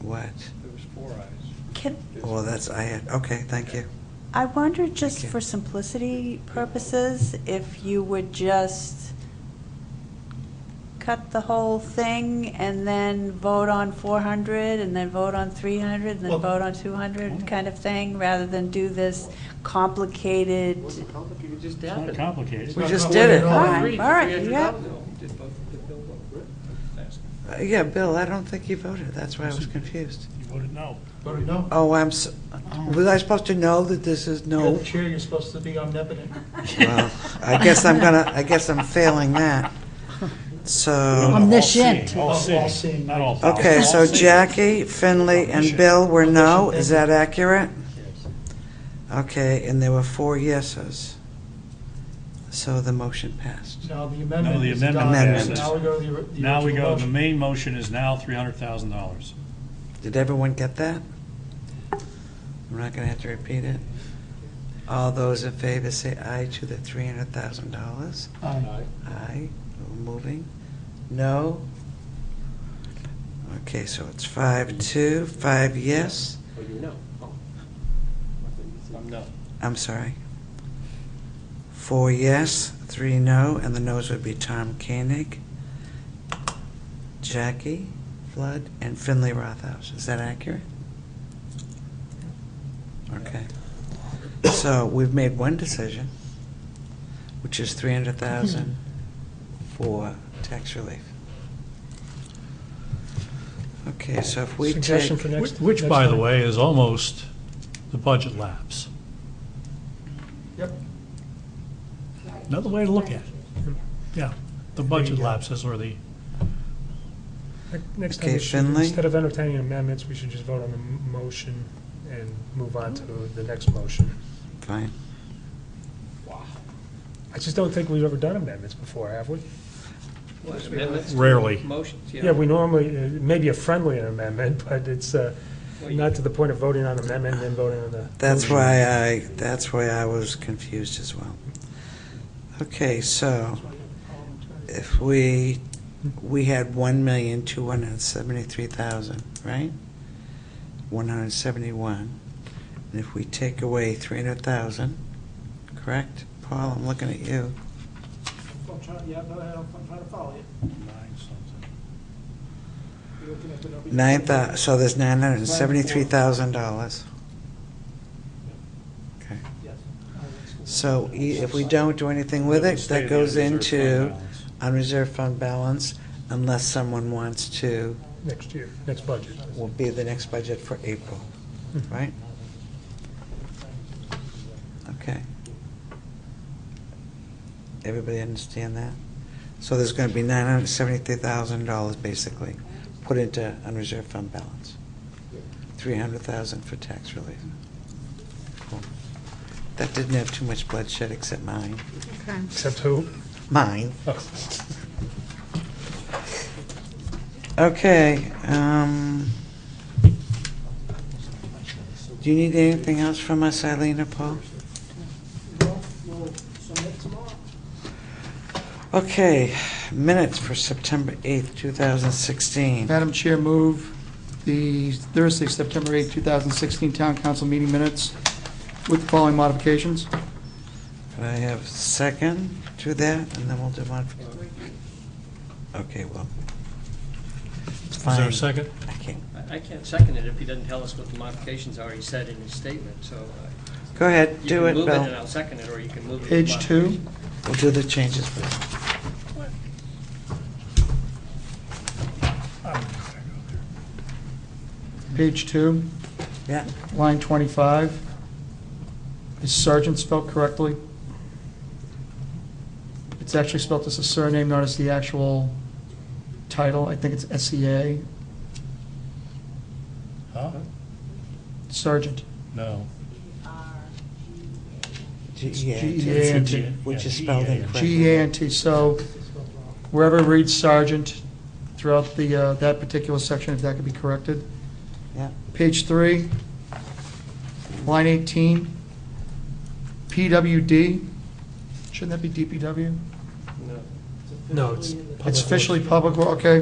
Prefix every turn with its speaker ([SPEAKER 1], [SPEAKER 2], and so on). [SPEAKER 1] what?
[SPEAKER 2] There was four ayes.
[SPEAKER 3] Can,
[SPEAKER 1] Well, that's, I had, okay, thank you.
[SPEAKER 3] I wonder, just
[SPEAKER 1] Thank you.
[SPEAKER 3] for simplicity purposes, if you would just cut the whole thing and then vote on 400, and then vote on 300, and
[SPEAKER 2] Well-
[SPEAKER 3] then vote on 200, kind of thing, rather than do this complicated,
[SPEAKER 4] It wasn't complicated, you just
[SPEAKER 5] It's
[SPEAKER 4] did
[SPEAKER 5] not
[SPEAKER 4] it.
[SPEAKER 5] complicated.
[SPEAKER 1] We just did it.
[SPEAKER 4] All right,
[SPEAKER 3] All right, yeah.
[SPEAKER 2] No, did both, did Bill vote? That's-
[SPEAKER 1] Uh, Yeah, Bill, I don't think you voted, that's why I was confused.
[SPEAKER 5] You voted no.
[SPEAKER 6] Voted no.
[SPEAKER 1] Oh, I'm, s- was I supposed to know that this is
[SPEAKER 6] You're
[SPEAKER 1] no?
[SPEAKER 6] the chair, you're supposed to be omnipotent.
[SPEAKER 1] Well, I guess I'm gonna, I guess I'm failing that. So,
[SPEAKER 7] Omniscient.
[SPEAKER 5] All seeing, all seeing,
[SPEAKER 6] All seeing.
[SPEAKER 5] not all. powerful.
[SPEAKER 1] Um, okay, so
[SPEAKER 5] All seeing.
[SPEAKER 1] Jackie, Finley, and Bill were no, is that accurate? Okay, and there were four yeses. So the motion passed.
[SPEAKER 6] Now, the
[SPEAKER 5] No,
[SPEAKER 6] amendment
[SPEAKER 5] the
[SPEAKER 6] is
[SPEAKER 5] amendment
[SPEAKER 6] done.
[SPEAKER 1] passes.
[SPEAKER 6] Now we go to the or- the
[SPEAKER 5] Now we
[SPEAKER 6] original
[SPEAKER 5] go, the
[SPEAKER 6] motion.
[SPEAKER 5] main motion is now three hundred thousand dollars.
[SPEAKER 1] Did everyone get that? I'm not gonna have to repeat it. All those in favor say aye to the three hundred thousand dollars.
[SPEAKER 6] Aye.
[SPEAKER 1] Aye, We're moving. No? Okay, so it's five, two, five yes.
[SPEAKER 4] Oh, you know. Oh.
[SPEAKER 6] I'm no.
[SPEAKER 1] I'm sorry. Four yes, three no, and the no's would be Tom Koenig, Jackie Flood, and Finley Rothaus. Is that accurate? Okay. So we've made one decision, which is three hundred thousand for tax relief. Okay, so if we take,
[SPEAKER 6] Suggestion for next.
[SPEAKER 8] Which,
[SPEAKER 6] next
[SPEAKER 8] by the
[SPEAKER 6] time.
[SPEAKER 8] way, is almost the budget lapse.
[SPEAKER 6] Yep.
[SPEAKER 8] Another way to look at it. Yeah, the budget
[SPEAKER 9] go.
[SPEAKER 8] lapses or the,
[SPEAKER 9] Next
[SPEAKER 1] Okay,
[SPEAKER 9] time, we should,
[SPEAKER 1] Finley?
[SPEAKER 9] instead of entertaining amendments, we should just vote on the m- motion and move on to the next motion.
[SPEAKER 1] fine.
[SPEAKER 9] I just don't think we've ever done amendments before, have we?
[SPEAKER 2] Well, amendments to
[SPEAKER 8] Rarely.
[SPEAKER 2] Motions, yeah.
[SPEAKER 9] Yeah, we normally, uh, maybe a friendly amendment, but it's uh,
[SPEAKER 2] Well, you-
[SPEAKER 9] not to the point of voting on amendment and then voting on the.
[SPEAKER 1] That's
[SPEAKER 9] motion.
[SPEAKER 1] why I, uh, that's why I was confused as well. Okay, so if we, we had one million, two hundred and seventy-three thousand, right? One hundred and seventy-one. And if we take away three hundred thousand, correct? Paul, I'm looking at you.
[SPEAKER 10] I'm trying, yeah, go ahead, I'm I'm trying to follow you.
[SPEAKER 5] Nine something.
[SPEAKER 10] You're looking at the number.
[SPEAKER 1] Nine thou, uh, so there's nine hundred and seventy-three thousand dollars. Okay.
[SPEAKER 10] Yes.
[SPEAKER 1] So i- if we don't do anything with
[SPEAKER 5] That
[SPEAKER 1] it,
[SPEAKER 5] would stay
[SPEAKER 1] that
[SPEAKER 5] the
[SPEAKER 1] goes
[SPEAKER 5] unreserved fund
[SPEAKER 1] into
[SPEAKER 5] balance.
[SPEAKER 1] unreserved fund balance unless someone wants to,
[SPEAKER 9] Next year, next budget.
[SPEAKER 1] will be the next budget for April, right? Okay. Everybody understand that? So there's going to be nine hundred seventy-three thousand dollars basically put into unreserved fund balance. Three hundred thousand for tax relief. Cool. That didn't have too much bloodshed except mine,
[SPEAKER 7] Okay.
[SPEAKER 9] Except who?
[SPEAKER 1] mine.
[SPEAKER 9] Oh.
[SPEAKER 1] Okay, um, do you need anything else from us, Eileen or Paul?
[SPEAKER 10] Well, we'll submit tomorrow.
[SPEAKER 1] Okay, minutes for September 8th, 2016.
[SPEAKER 4] Madam Chair, move the Thursday, September 8, 2016 Town Council meeting minutes with the following modifications.
[SPEAKER 1] Can I have a second to that, and then we'll do one? Okay, well. It's
[SPEAKER 8] is there
[SPEAKER 1] fine.
[SPEAKER 8] a second?
[SPEAKER 1] I can't-
[SPEAKER 4] I can't second it if he doesn't tell us what the modifications are he said in his statement, so uh,
[SPEAKER 1] Go ahead,
[SPEAKER 4] you
[SPEAKER 1] do it,
[SPEAKER 4] can move it and
[SPEAKER 1] Bill.
[SPEAKER 4] I'll second it, or you can move it.
[SPEAKER 6] Page two.
[SPEAKER 1] We'll do the changes, Bill.
[SPEAKER 4] Page two.
[SPEAKER 1] Yeah,
[SPEAKER 4] Line 25, is Sergeant spelled correctly? It's actually spelled as a surname, not as the actual title. I think it's E S-E-A,
[SPEAKER 8] Huh?
[SPEAKER 4] Sergeant.
[SPEAKER 8] No.
[SPEAKER 1] E G-E-A-N-T, which is spelled
[SPEAKER 8] Yeah,
[SPEAKER 1] incorrectly.
[SPEAKER 4] G-E-A-N-T, so wherever it reads sergeant throughout the, uh, that particular section, if that could be corrected.
[SPEAKER 1] Yeah.
[SPEAKER 4] Page three, line 18, PWD, shouldn't that be DPW?
[SPEAKER 9] No, it's.
[SPEAKER 4] It's officially public, wo- okay,